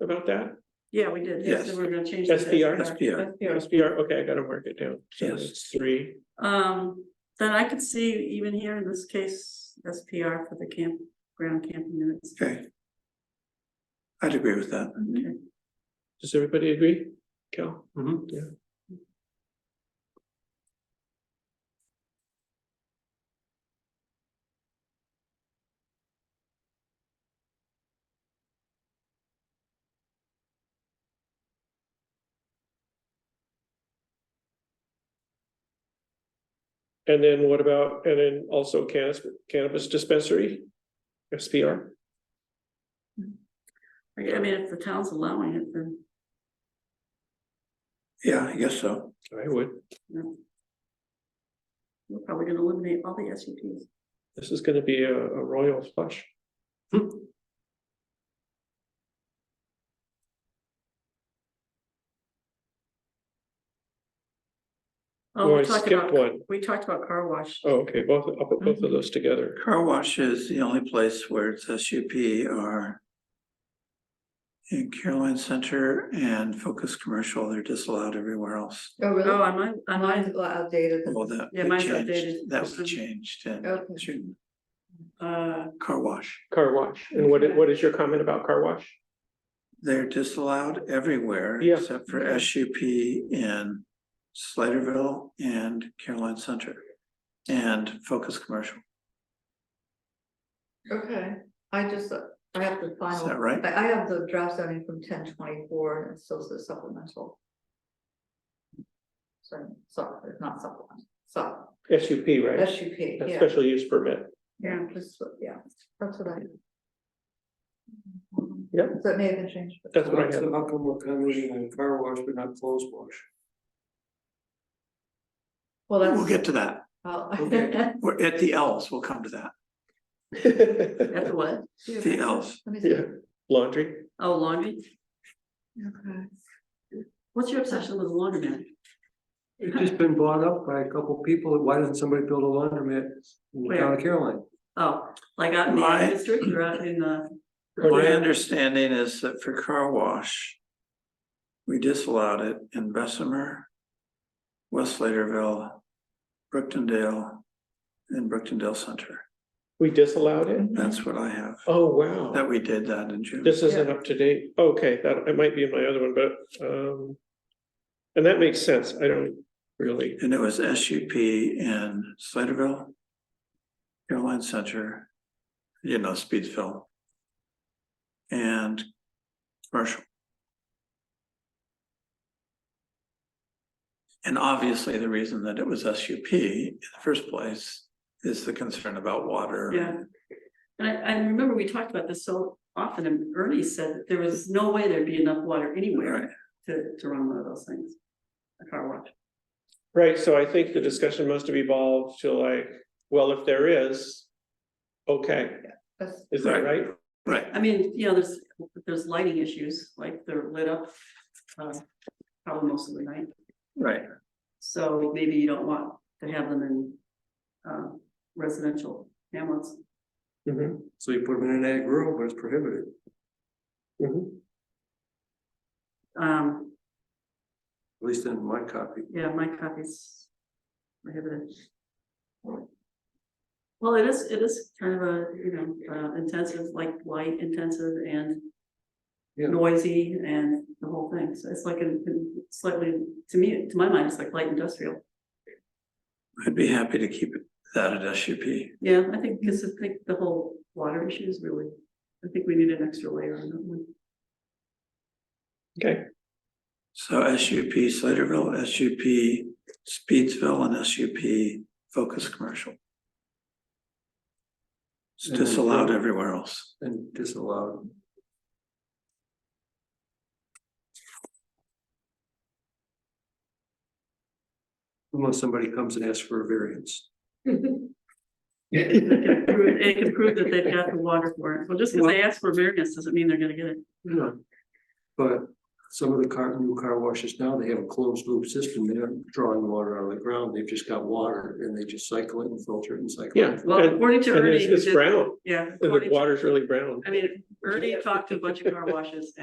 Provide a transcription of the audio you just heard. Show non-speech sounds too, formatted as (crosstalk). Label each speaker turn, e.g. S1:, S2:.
S1: about that?
S2: Yeah, we did. Yes,
S3: Yes.
S2: we're gonna change. that.
S1: SPR?
S3: SPR.
S2: SPR.
S1: SPR, okay, I gotta mark it down. So
S3: Yes.
S1: it's Three,
S2: Um, then I could see even here in this case, SPR for the camp, ground camping units.
S3: Okay. I'd agree with that.
S2: Okay.
S1: does everybody agree? Cal? Mm-hmm. Yeah. And then what about, and then also cannabis, cannabis dispensary? SPR?
S2: I mean, if the town's allowing it, then.
S3: Yeah, I guess so.
S1: I would.
S2: We're probably gonna eliminate all the E SUPs.
S1: This is gonna be a, a royal flush.
S2: Oh,
S1: Or I
S2: we talked
S1: skipped
S2: about, Mm-hmm.
S1: one.
S2: we talked about car wash.
S1: Oh, okay, both, I'll put both of those together.
S3: Car wash is the only place where it's SUP or in Caroline Center and Focus Commercial, they're disallowed everywhere else.
S4: Oh,
S2: Oh,
S4: really?
S2: am I, am
S4: Mine's
S2: I,
S4: a lot outdated.
S3: Well, that,
S2: Yeah,
S3: that
S2: mine's
S3: changed,
S2: updated.
S3: that was changed in
S4: Okay.
S3: June.
S2: uh,
S3: car wash.
S1: Car wash, and what, i- what is your comment about car wash?
S3: They're disallowed everywhere
S1: Yeah.
S3: except for SUP in Sliderville and Caroline Center and Focus Commercial.
S4: Okay, I just, uh, I have the final.
S3: that right?
S4: I, I have the draft zoning from ten twenty-four and it still says supplemental. Sorry, so, it's not supplemental, so,
S1: SUP, right?
S4: SUP,
S1: A
S4: yeah,
S1: Special use permit.
S4: yeah, just, yeah, that's what I.
S1: Yeah.
S4: That may have been changed. but-
S1: That's what I have.
S5: So how come we're converting a car wash but not clothes wash?
S4: Well,
S3: We'll
S4: that's.
S3: get to that.
S4: (laughs) oh.
S3: We're at the L's. We'll come to that.
S2: that's what?
S3: The L's.
S4: Let me see.
S1: Yeah, (laughs) laundry,
S2: Oh, laundry.
S4: Okay.
S2: What's your obsession with laundry man?
S5: It's just been brought up by a couple people, why doesn't somebody build a laundromat in the town of Caroline?
S2: Oh, like out in the
S3: My-
S2: ag district or out in the,
S3: My understanding is that for car wash, we disallowed it in Bessemer, West Sladeville, Brooktondale, and Brooktondale Center.
S1: we disallowed it?
S3: That's what I have.
S1: Oh, wow,
S3: That we did that in June.
S1: this isn't up to date, okay, that, it might be in my other one, but, um. And that makes sense, I don't really,
S3: And it was SUP in Sladeville, Caroline Center, you know, Speedsville. And commercial. And obviously, the reason that it was SUP in the first place is the concern about water.
S2: yeah. And I, I remember we talked about this so often and Ernie said that there was no way there'd be enough water
S3: Right.
S2: anywhere to, to run one of those things. A car wash.
S1: right, so I think the discussion must have evolved to like, well, if there is. Okay,
S4: That's,
S1: is that right?
S3: Right,
S2: I mean, you know, there's, there's lighting issues, like they're lit up, uh, probably most of the night.
S3: right.
S2: So maybe you don't want to have them in, uh, residential hamlets.
S1: Mm-hmm.
S5: So you put them in an ag rural, but it's prohibited.
S2: Um,
S5: At least in my copy.
S2: yeah, my copy's prohibited. Well, it is, it is kind of a, you know, uh, intensive, like light intensive and
S5: Yeah.
S2: noisy and the whole thing. So it's like a a slightly, to me, to my mind, it's like light industrial.
S3: I'd be happy to keep it- that at SUP.
S2: Yeah, I think, because I think the whole water issue is really, I think we need an extra layer on that one.
S1: Okay,
S3: So SUP Sladeville, SUP Speedsville and SUP Focus Commercial. It's
S5: And-
S3: disallowed everywhere else.
S5: And disallowed. Unless somebody comes and asks for a variance.
S1: (laughs)
S2: Prove- It can prove that they've got the water for it. Well, just because they asked for variance doesn't mean they're gonna get it.
S5: Yeah. But some of the car, new car washes now, they have a closed loop system, they're not drawing water out of the ground, they've just got water and they just cycle it and filter it and cycle. it.
S1: yeah.
S2: Well,
S1: and-
S2: according to
S1: And
S2: Ernie,
S1: it's,
S2: he
S1: it's
S2: did-
S1: brown,
S2: yeah.
S1: the
S2: according to-
S1: water's really brown.
S2: I mean, Ernie talked to a bunch of car washes